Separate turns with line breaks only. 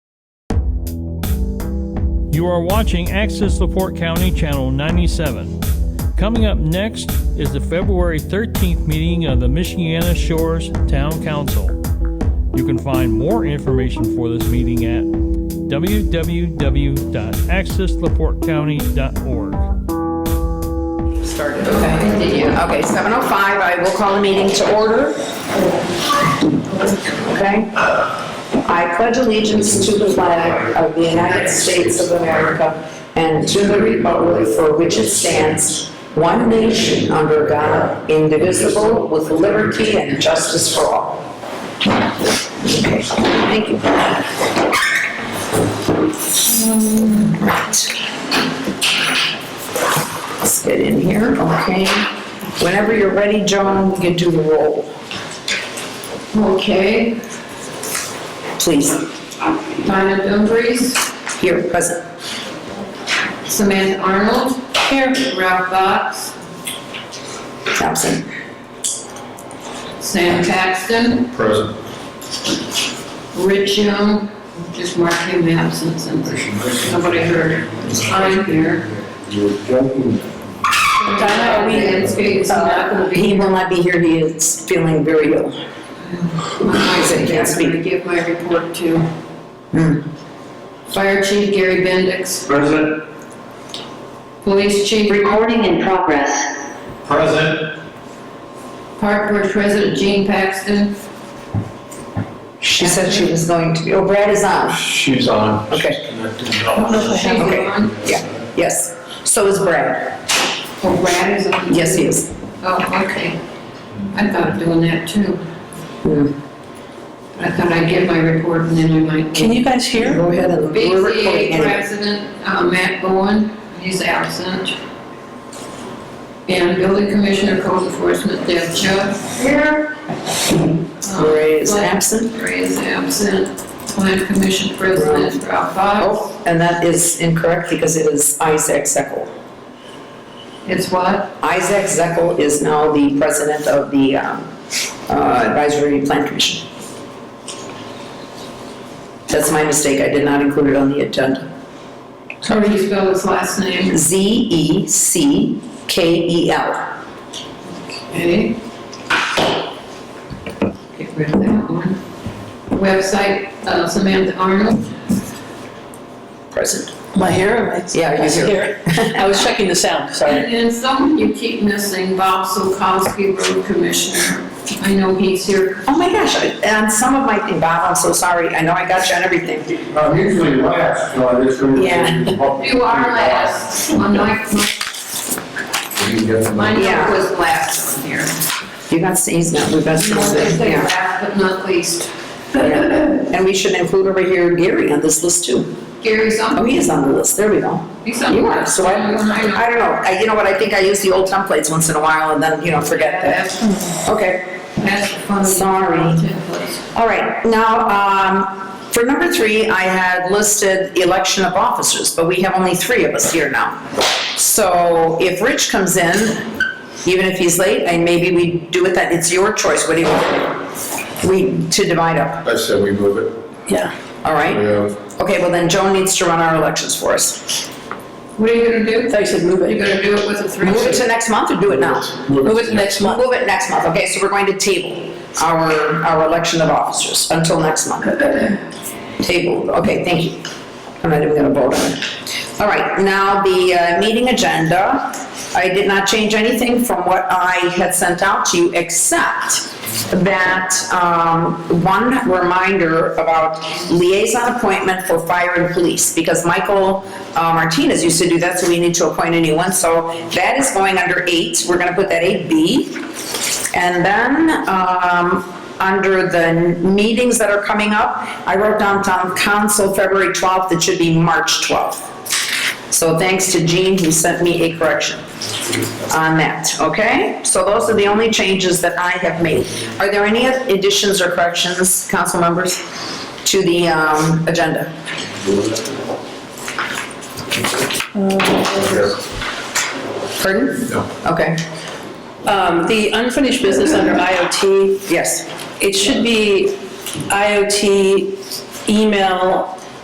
You are watching Access LaPorte County Channel 97. Coming up next is the February 13th meeting of the Michiana Shores Town Council. You can find more information for this meeting at www.accesslaportecounty.org.
started. Okay, did you? Okay, 7:05, I will call the meeting to order. Okay? I pledge allegiance to the flag of the United States of America and to the republic for which it stands, one nation under God, indivisible, with liberty and justice for all. Okay, thank you. Um, Right. Let's get in here, okay? Whenever you're ready, Joan, you can do the roll.
Okay,
Please,
Donna Dumfries,
here, present.
Samantha Arnold. Here. Ralph Box,
Absent.
Sam Paxton,
Present.
Rich Young, just mark him absent since nobody heard. I'm here. Donna Lansky is not going to
He
be.
will not be here, he is feeling very ill.
I'm
can't speak. Hmm.
going to give my report to Fire Chief Gary Bendix,
Present.
Police Chief
Recording in progress.
Present.
Park Board President Gene Paxton,
She said she was going to be, oh, Brad is on.
She's on.
Okay.
She's connected. No.
she's
Okay.
on.
Yeah, yes. So is Brad.
Oh, Brad is on.
Yes, he is.
Oh, okay. I thought of doing that too.
Hmm.
I thought I'd give my report and then I might.
you guys hear? Go ahead and. we're recording
BZA
anyway.
President uh, Matt Bowen, he's absent. And Building Commissioner Code Enforcement Deb Chubb. Here.
Ray is absent.
Ray is absent. Plan Commission President Ralph Fox.
Oh, and that is incorrect because it is Isaac Zekel.
It's what?
Isaac Zekel is now the president of the um, uh, Advisory Plan Commission. That's my mistake, I did not include it on the agenda.
How do you spell his last name?
E Z-E-C-K-E-L.
Okay. Get rid of that one. Website uh, Samantha Arnold.
Present.
Am I here? Am I-
Yeah, you're
I was
here.
I was checking the sound, sorry.
And and someone you keep missing, Bob Sokowski, road commissioner. I know he's here.
Oh my gosh, I- and some of my, thing, Bob, I'm so sorry, I know I got you on everything.
I'm usually last, so I just.
Yeah.
You are last. On my, my
Yeah.
note was last on here.
You got Steve's now, we've got
You know, they
Steve's,
say
yeah.
last but not least.
And we should include over here Gary on this list too.
Gary's
Oh,
on,
he is on the list, there we go.
he's on.
You are, so I, I don't know, I- you know what, I think I use the old templates once in a while and then, you know, forget that.
That's,
Okay,
that's the fun.
Sorry.
Templates.
all right, now, um, for number three, I had listed election of officers, but we have only three of us here now. So if Rich comes in, even if he's late, and maybe we do it that, it's your choice, what do you want? We, to divide up,
I said we move it.
Yeah.
all
We uh,
right?
have
Okay, well then Joan needs to run our elections for us.
What are you gonna do?
I thought you said move
You're
it.
gonna do it with a three?
Move it to next month or do it now?
Move it to next
We'll
month.
move it next month, okay, so we're going to table our, our election of officers until next month. Table, okay, thank you. I'm not even gonna vote on it. All right, now the uh, meeting agenda, I did not change anything from what I had sent out to you, except that, um, one reminder about liaison appointment for fire and police, because Michael uh, Martinez used to do that, so we need to appoint a new one, so that is going under eight, we're gonna put that eight B. And then, um, under the meetings that are coming up, I wrote down town council February 12th, it should be March 12th. So thanks to Jean who sent me a correction on that, okay? So those are the only changes that I have made. Are there any additions or corrections, council members, to the um, agenda? Pardon?
No.
Okay,
Um, The unfinished business under IoT,
yes.
it should be IoT email